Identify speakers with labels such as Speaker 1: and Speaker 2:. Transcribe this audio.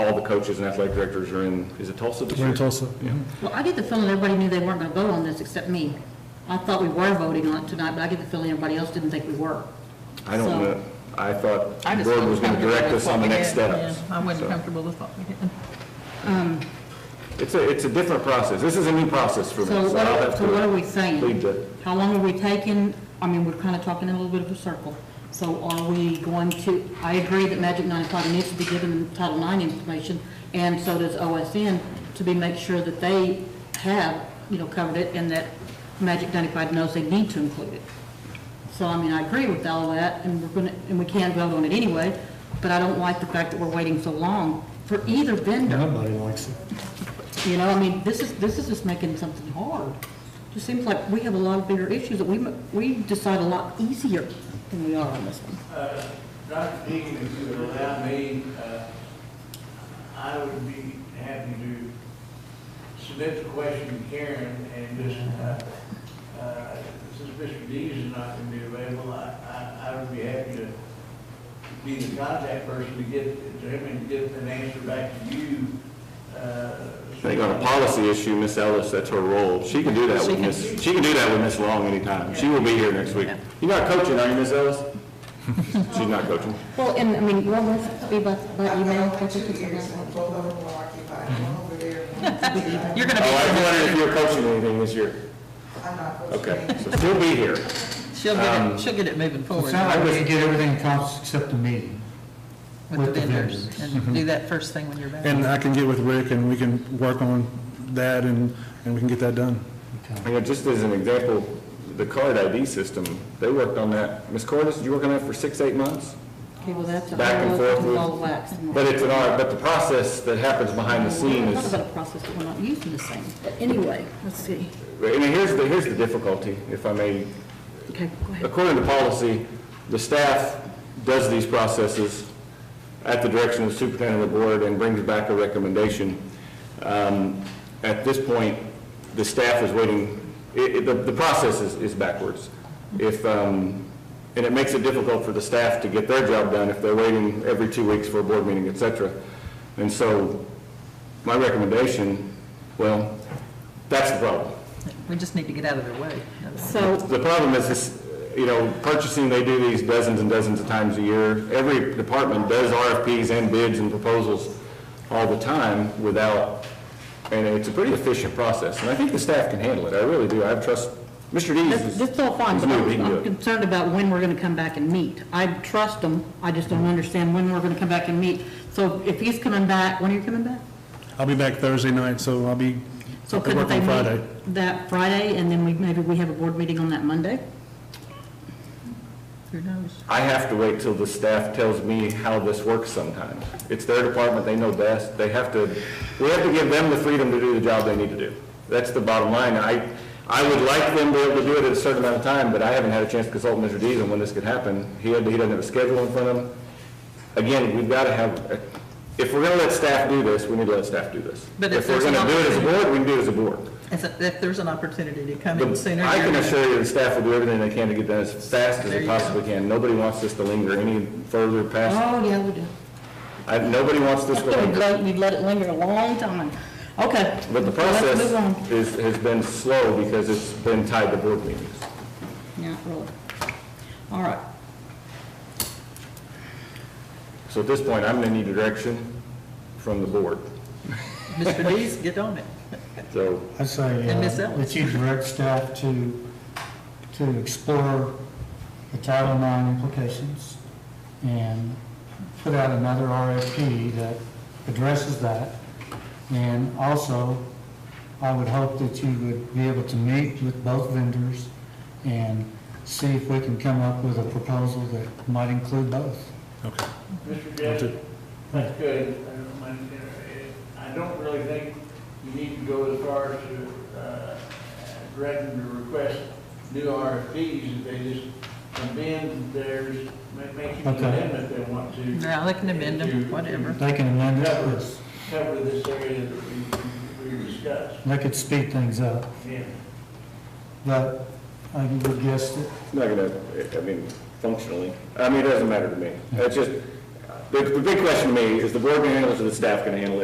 Speaker 1: coaches and athletic directors are in, is it Tulsa this
Speaker 2: We're
Speaker 1: year?
Speaker 2: in Tulsa.
Speaker 1: Yeah.
Speaker 3: Well, I get the feeling everybody knew they weren't going to vote on this except me. I thought we were voting on it tonight, but I get the feeling everybody else didn't think we were.
Speaker 1: I don't
Speaker 3: So-
Speaker 1: know, I thought
Speaker 4: I
Speaker 1: the
Speaker 4: just
Speaker 1: board
Speaker 4: wasn't
Speaker 1: was going to
Speaker 4: comfortable
Speaker 1: direct
Speaker 4: with
Speaker 1: us
Speaker 4: what
Speaker 1: on the
Speaker 4: we
Speaker 1: next
Speaker 4: did.
Speaker 1: steps.
Speaker 4: Yeah, I wasn't
Speaker 1: So,
Speaker 4: comfortable with what we did.
Speaker 1: It's a, it's a different process, this is a new process for me,
Speaker 3: So
Speaker 1: so
Speaker 3: what
Speaker 1: I'll
Speaker 3: are,
Speaker 1: have
Speaker 3: so what are
Speaker 1: to
Speaker 3: we saying?
Speaker 1: lead the,
Speaker 3: How long are we taking? I mean, we're kind of talking in a little bit of a circle. So are we going to, I agree that Magic 95 needs to be given Title IX information, and so does OSN, to be, make sure that they have, you know, covered it, and that Magic 95 knows they need to include it. So, I mean, I agree with all that, and we're gonna, and we can vote on it anyway, but I don't like the fact that we're waiting so long for either vendor.
Speaker 2: Nobody likes it.
Speaker 3: You know, I mean, this is, this is just making something hard. Just seems like we have a lot of bigger issues that we, mu- we decide a lot easier than we are on this one.
Speaker 5: Uh, Dr. Deegan, if you would allow me, uh, I would be happy to submit the question to Karen and just, uh, uh, since Mr. Dees is not going to be available, I- I I would be happy to be the contact person to get, to him and get an answer back to you. uh,
Speaker 1: I think on a policy issue, Miss Ellis, that's her role, she can do that with Miss. she can do that with Miss Long anytime, she will be here next week. You're not coaching, are you, Miss Ellis? She's not coaching.
Speaker 3: Well, and, I mean, you want to be by, by email?
Speaker 6: I've got two ears, and both of them are occupied, one over there. and one over there.
Speaker 4: You're going
Speaker 1: Oh, I was
Speaker 4: to
Speaker 1: wondering if you were coaching anything this year.
Speaker 6: I'm not supposed to
Speaker 1: Okay,
Speaker 6: be.
Speaker 1: so she'll be here.
Speaker 4: be, she'll get it, she'll get it moving
Speaker 2: It
Speaker 4: forward
Speaker 2: sounds like we can get everything accomplished except the meeting.
Speaker 4: with the vendors. And do that first thing when you're back.
Speaker 7: And I can get with Rick and we can work on that and, and we can get that done.
Speaker 1: I mean, just as an example, the card ID system, they worked on that. Ms. Cordis, did you work on that for six, eight months?
Speaker 3: Okay, well, that's. a
Speaker 1: Back and
Speaker 3: whole
Speaker 1: forth with-
Speaker 3: ball of wax.
Speaker 1: But it's an art, but the process that happens behind the
Speaker 3: We're
Speaker 1: scenes
Speaker 3: not
Speaker 1: is,
Speaker 3: about a process that we're not using the same, but anyway, let's see.
Speaker 1: I mean, here's the, here's the difficulty, if I may.
Speaker 3: Okay, go ahead.
Speaker 1: According to policy, the staff does these processes at the direction of the superintendent of the board and brings back a recommendation. Um, At this point, the staff is waiting, it, it, the, the process is, is backwards. If, um, and it makes it difficult for the staff to get their job done if they're waiting every two weeks for a board meeting, et cetera. And so, my recommendation, well, that's the problem.
Speaker 4: We just need to get out of their way. That's-
Speaker 3: So,
Speaker 1: The problem is this, you know, purchasing, they do these dozens and dozens of times a year. Every department does RFPs and bids and proposals all the time without, and it's a pretty efficient process. And I think the staff can handle it. I really do. I trust, Mr. Dees
Speaker 3: that's,
Speaker 1: is.
Speaker 3: that's all fine,
Speaker 1: is
Speaker 3: but
Speaker 1: new. He
Speaker 3: I'm
Speaker 1: can do
Speaker 3: I'm
Speaker 1: it.
Speaker 3: concerned about when we're going to come back and meet. I trust them, I just don't understand when we're going to come back and meet. So if he's coming back, when are you coming back?
Speaker 7: I'll be back Thursday night, so I'll be,
Speaker 3: So
Speaker 7: I'll be
Speaker 3: couldn't
Speaker 7: working
Speaker 3: they
Speaker 7: on Friday.
Speaker 3: meet that Friday, and then we, maybe we have a board meeting on that Monday?
Speaker 4: Who knows?
Speaker 1: I have to wait till the staff tells me how this works sometimes. It's their department, they know best, they have to, we have to give them the freedom to do the job they need to do. That's the bottom line. I, I would like them to be able to do it at a certain amount of time, but I haven't had a chance to consult Mr. Dees on when this could happen. He had, he doesn't have a schedule in front of him. Again, we've got to have, if we're going to let staff do this, we need to let staff do this.
Speaker 4: But if
Speaker 1: we're
Speaker 4: there's an
Speaker 1: going to do it as a board, we can do it as a board.
Speaker 4: If if there's an opportunity to come in
Speaker 1: But
Speaker 4: sooner.
Speaker 1: I can
Speaker 4: you're-
Speaker 1: assure you, the staff will do everything they can to get that as fast as
Speaker 4: There
Speaker 1: they
Speaker 4: you go.
Speaker 1: possibly can. Nobody wants this to linger any further past
Speaker 3: Oh, yeah, we do.
Speaker 1: I, nobody wants this
Speaker 3: We've
Speaker 1: to
Speaker 3: let, we've let it linger a long time. Okay.
Speaker 1: but the
Speaker 3: So let's
Speaker 1: process
Speaker 3: move on.
Speaker 1: is, has been slow because it's been tied to board meetings.
Speaker 3: Yeah, really. All right.
Speaker 1: So at this point, I'm gonna need direction from the board,
Speaker 4: Mr. Dees, get on it.
Speaker 1: so.
Speaker 2: I say,
Speaker 4: And Miss
Speaker 2: uh,
Speaker 4: Ellis.
Speaker 2: that you direct staff to, to explore the Title IX implications and put out another RFP that addresses that. And also, I would hope that you would be able to meet with both vendors and see if we can come up with a proposal that might include both.
Speaker 7: Okay.
Speaker 5: Mr. Judge, that's good. I don't mind, uh, I don't really think you need to go as far as to uh, threaten to request new RFPs. If They just amend theirs, ma- make an
Speaker 2: Okay.
Speaker 5: amendment they want to.
Speaker 4: No, they can amend them, whatever.
Speaker 2: They can amend it,
Speaker 5: Cover,
Speaker 2: but
Speaker 5: cover this area that we, we discussed.
Speaker 2: they could speed things up.
Speaker 5: Yeah.
Speaker 2: But I would guess that
Speaker 1: Not gonna, I mean, functionally, I mean, it doesn't matter to me. It's just, the, the big question to me is the board gonna handle it or the staff gonna handle it?